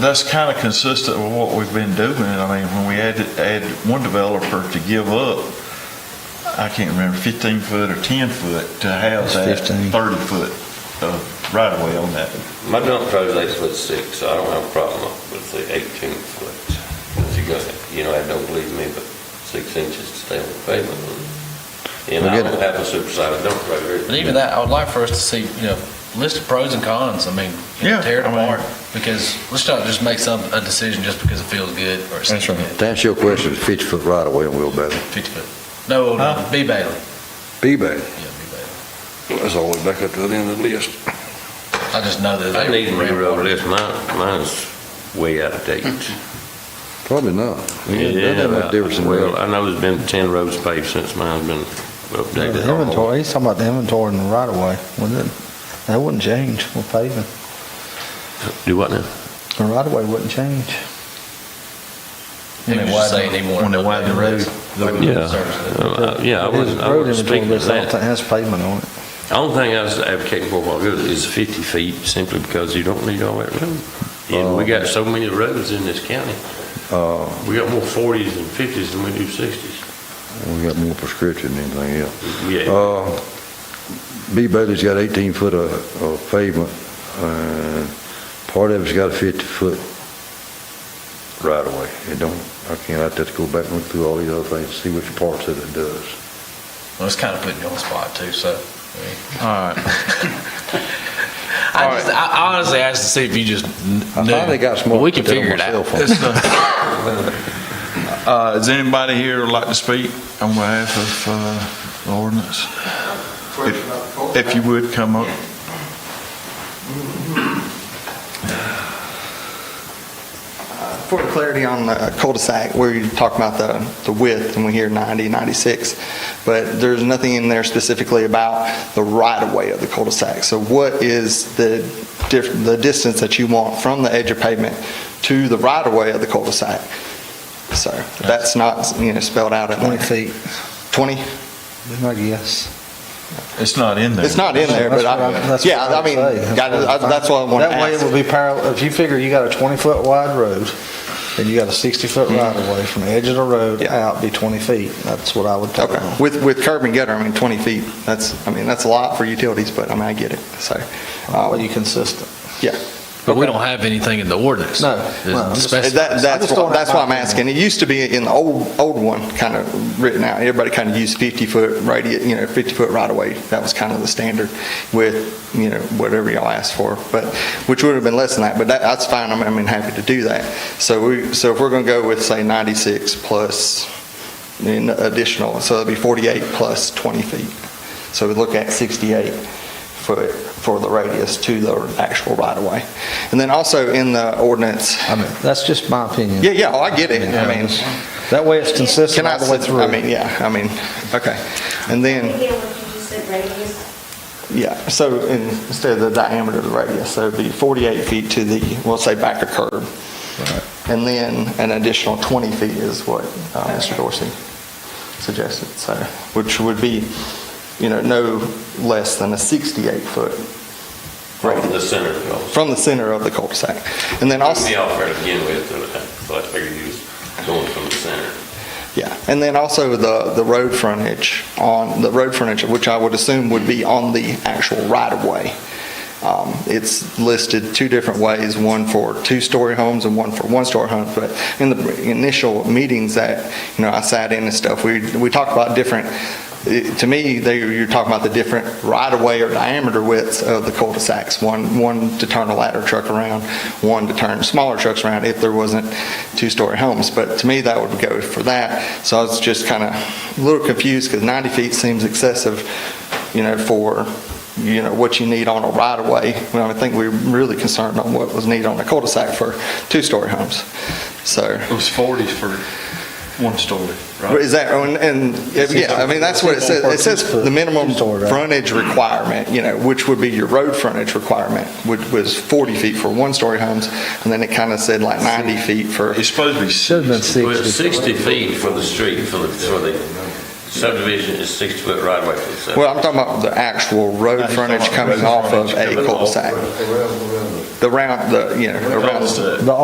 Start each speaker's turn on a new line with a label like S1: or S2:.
S1: That's kind of consistent with what we've been doing. I mean, when we had, had one developer to give up, I can't remember, 15 foot or 10 foot to have
S2: It's
S1: that
S2: 15.
S1: 30 foot of right of way on that.
S3: My dump truck's eight foot six, so I don't have a problem with the eighteen foot. If you got, you know, I don't believe me, but six inches to stay on the pavement. And I
S2: We'll get
S3: don't have a supersized dump truck.
S4: But even that, I would like for us to see, you know, list of pros and cons, I mean, you know,
S1: Yeah,
S4: tear it
S1: I mean-
S4: apart, because let's not just make some, a decision just because it feels good or it seems
S2: That's right.
S4: good.
S5: To answer your question, it's 50 foot right away on Wheelbarrow.
S4: Fifty foot. No, no,
S1: Huh?
S4: B Bailey, yeah, B
S5: B-Bag,
S4: Bailey.
S5: that's all the way back up to the end of the list.
S4: I just know that.
S3: I
S4: they
S3: need a new
S4: ran water.
S3: road list, mine, mine's way out of date.
S5: Probably not. That doesn't make a difference in
S3: Well,
S5: the...
S3: I know there's been ten roads paved since mine's been updated.
S2: The Inventory, he's talking about the inventory in the right of way, wouldn't it? That wouldn't change with paving.
S3: Do what now?
S2: The right of way wouldn't change.
S4: He was just saying he wanted.
S1: When they widen the road.
S3: Yeah,
S4: Service.
S3: Uh, yeah, I
S2: But his
S3: wasn't, I
S2: road
S3: wasn't
S2: inventory
S3: speaking to
S2: list, I don't
S3: that.
S2: think Has pavement on it.
S3: The Only thing I was advocating for a while ago is 50 feet, simply because you don't need all that road. And we got so many roads in this county.
S5: Uh,
S3: We got more 40s and 50s than we do 60s.
S5: we got more prescription than anything else.
S3: Yeah,
S5: Uh, B Bailey's got eighteen foot of, of pavement, and part of it's got a fifty foot right of way. It don't, I can't, I'd have to go back and look through all these other things, to see which parts that it does.
S4: Well, it's kind of putting you on the spot too, so.
S1: All right.
S4: I just, I I honestly asked to see if you just kn-
S5: I
S4: knew.
S5: finally got smart.
S4: Well, We
S5: to
S4: can
S5: put that on
S4: figure it
S5: my cell
S4: out.
S5: phone.
S1: Uh, does anybody here like to speak on behalf of, uh, the ordinance? If- If you would, come up.
S6: For clarity on the cul-de-sac, where you talk about the, the width, and we hear 90, 96, but there's nothing in there specifically about the right-of-way of the cul-de-sac. So what is the, diff- the distance that you want from the edge of pavement to the right-of-way of the cul-de-sac? So that's not, you know, spelled out in
S2: Twenty
S6: there.
S2: feet,
S6: 20?
S2: is my guess.
S1: It's not in there.
S6: It's not in there, but
S2: That's what
S6: I,
S2: that's
S6: yeah,
S2: what
S6: I mean,
S2: would say.
S6: got it. I- that's what I want to
S2: That way it
S6: ask.
S2: would be parallel, if you figure you got a twenty foot wide road, and you got a sixty foot right of way from the edge of the road
S6: Mm-hmm. Yeah.
S2: out be twenty feet, that's what I would put it
S6: Okay,
S2: on.
S6: with, with curb and gutter, I mean, 20 feet, that's, I mean, that's a lot for utilities, but I mean, I get it, so. uh,
S2: Are you consistent?
S6: Yeah.
S4: But we don't have anything in the ordinance.
S2: No,
S4: that
S2: no, I'm just-
S4: specifies.
S6: That,
S2: I just
S6: that's,
S2: don't
S6: why- that's
S2: have
S6: why I'm
S2: my-
S6: asking. It used to be in the old, old one, kind of written out, everybody kind of used 50-foot radius, you know, 50-foot right-of-way. That was kind of the standard with, you know, whatever y'all asked for, but, which would have been less than that, but that, that's fine, I'm, I mean, happy to do that. So we, so if we're going to go with, say, 96 plus an additional, so it'd be 48 plus 20 feet. So we look at 68 foot for the radius to the actual right-of-way. And then also in the ordinance,
S2: I mean, that's just my opinion.
S6: yeah, yeah, oh, I get it. I mean,
S2: That way it's consistent
S6: can I,
S2: all the way through.
S6: I mean, yeah, I mean, okay. And then,
S7: Again, what you just said, radius,
S6: yeah, so in- instead of the diameter of the radius, so it'd be 48 feet to the, we'll say back of curb. And then an additional 20 feet is what uh, Mr. Dorsey suggested, so, which would be, you know, no less than a 68-foot
S3: right in
S6: radius
S3: the center of it all.
S6: from the center of the cul-de-sac. And then also.
S3: Took me off there to begin with, uh, so I figured he was going from the center.
S6: Yeah, and then also the, the road frontage on, the road frontage, which I would assume would be on the actual right-of-way. Um, It's listed two different ways, one for two-story homes and one for one-story homes, but in the initial meetings that, you know, I sat in and stuff, we, we talked about different, it- to me, they, you're talking about the different right-of-way or diameter widths of the cul-de-sacs. One, one to turn a ladder truck around, one to turn smaller trucks around if there wasn't two-story homes. But to me, that would go for that. So I was just kind of a little confused because 90 feet seems excessive, you know, for, you know, what you need on a right-of-way. When I think we we're really concerned on what was needed on a cul-de-sac for two-story homes. So.
S1: It was 40 for one story, right?
S6: Is that, and, and, yeah, I mean, that's what it says, it says the minimum frontage requirement, you know, which would be your road frontage requirement, which was 40 feet for one-story homes, and then it kind of said like 90 feet for,
S1: It's supposed to be
S2: Should've been
S1: 60.
S3: Well, it's
S2: sixty.
S3: 60 feet for the street, for the, for the subdivision is 60 foot right away from the subdivision.
S6: well, I'm talking about the actual road frontage coming off of a cul-de-sac. The round, the, you know, around.
S1: Cul-de-sac.
S2: The